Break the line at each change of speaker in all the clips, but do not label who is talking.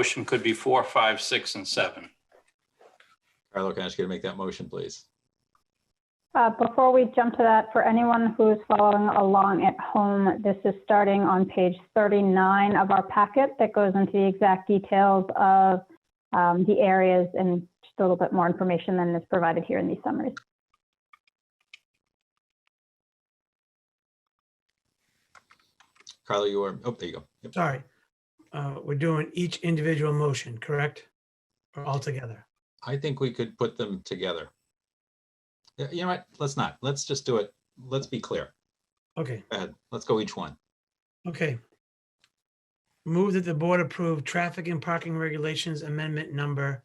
motion could be four, five, six, and seven.
Carlo, can I ask you to make that motion, please?
Uh, Before we jump to that, for anyone who's following along at home, this is starting on page 39 of our packet that goes into the exact details of um, the areas and just a little bit more information than is provided here in these summaries.
Carlo, you are, oh, there you go. Yep.
Sorry. Uh, We're doing each individual motion, correct? Or all together?
I think we could put them together. Yeah, You know what? Let's not. Let's just do it. Let's be clear.
Okay,
Go ahead. Let's go each one.
okay. Move that the board approve traffic and parking regulations amendment number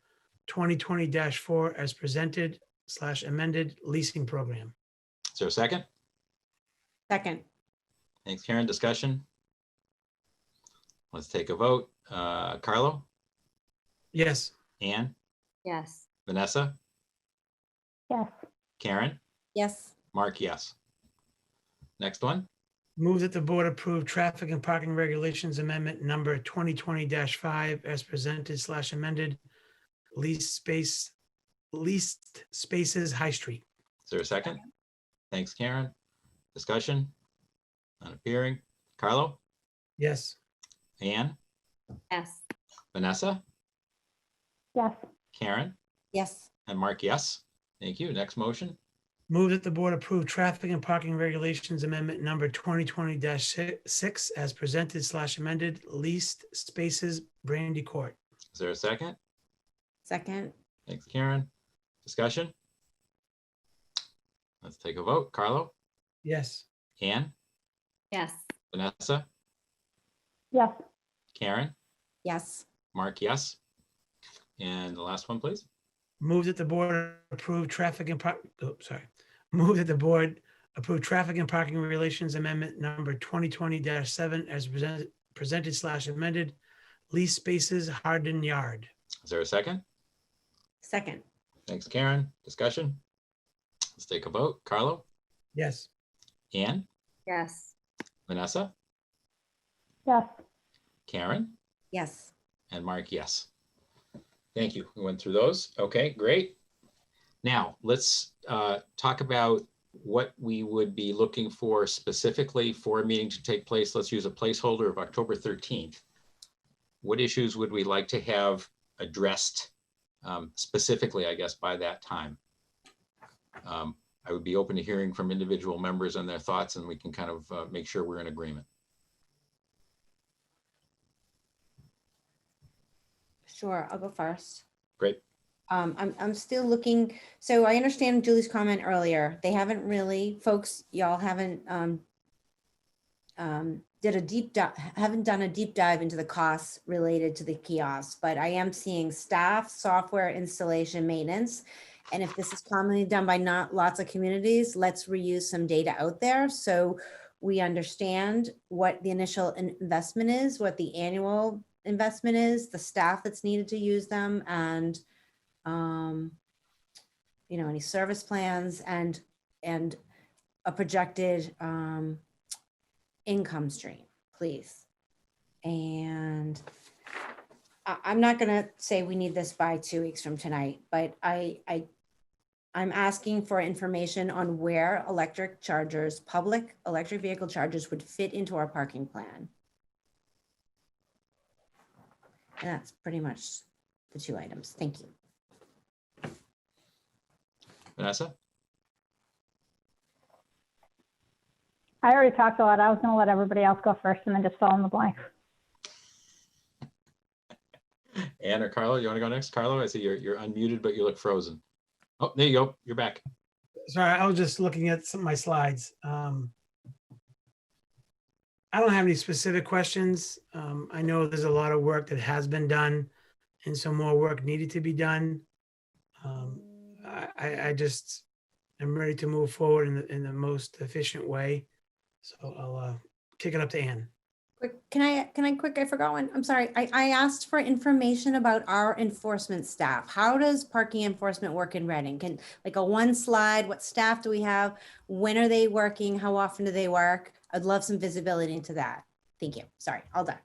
2020-4 as presented slash amended leasing program.
Is there a second?
Second,
Thanks, Karen. Discussion? Let's take a vote. Uh, Carlo,
Yes,
Anne,
Yes.
Vanessa,
Yes,
Karen,
yes,
Mark, yes. Next one.
move that the board approve traffic and parking regulations amendment number 2020-5 as presented slash amended lease space, leased spaces, High Street.
Is there a second? Thanks, Karen. Discussion? Not appearing. Carlo,
Yes.
Anne,
Yes.
Vanessa,
yes,
Karen,
yes,
and Mark, yes. Thank you. Next motion.
Move that the board approve traffic and parking regulations amendment number twenty twenty six as presented slash amended leased spaces Brandy Court.
Is there a second?
second,
Thanks, Karen. Discussion? Let's take a vote. Carlo,
Yes.
Anne,
Yes.
Vanessa,
yes,
Karen,
yes,
Mark, yes. And the last one, please.
Move that the board approve traffic and park, oh, sorry. Move that the board approve traffic and parking regulations amendment number twenty twenty seven as presented presented slash amended leased spaces Hardin Yard.
Is there a second?
second,
Thanks, Karen. Discussion? Let's take a vote. Carlo,
Yes.
Anne,
Yes.
Vanessa,
yes.
Karen,
yes.
And Mark, yes. Thank you. We went through those. Okay, great. Now, let's uh, talk about what we would be looking for specifically for a meeting to take place. Let's use a placeholder of October 13th. What issues would we like to have addressed um, specifically, I guess, by that time? Um, I would be open to hearing from individual members and their thoughts, and we can kind of uh, make sure we're in agreement.
Sure, I'll go first.
Great.
Um, I'm, I'm still looking, so I understand Julie's comment earlier. They haven't really, folks, y'all haven't, um, um, did a deep dive, haven't done a deep dive into the costs related to the kiosks, but I am seeing staff, software, installation, maintenance. And if this is commonly done by not lots of communities, let's reuse some data out there. So we understand what the initial in- investment is, what the annual investment is, the staff that's needed to use them and um, you know, any service plans and, and a projected um, income stream, please. And I, I'm not gonna say we need this by two weeks from tonight, but I, I, I'm asking for information on where electric chargers, public electric vehicle chargers would fit into our parking plan. And that's pretty much the two items. Thank you.
Vanessa?
I already talked a lot. I was going to let everybody else go first and then just fill in the blank.
Anne or Carlo, you want to go next? Carlo, I see you're, you're unmuted, but you look frozen. Oh, there you go. You're back.
Sorry, I was just looking at some of my slides. Um, I don't have any specific questions. Um, I know there's a lot of work that has been done and some more work needed to be done. Um, I, I, I just, I'm ready to move forward in the, in the most efficient way. So I'll, uh, kick it up to Ann.
Quick, can I, can I quick, I forgot one. I'm sorry. I, I asked for information about our enforcement staff. How does parking enforcement work in Reading? Can, like a one slide, what staff do we have? When are they working? How often do they work? I'd love some visibility into that. Thank you. Sorry, all done.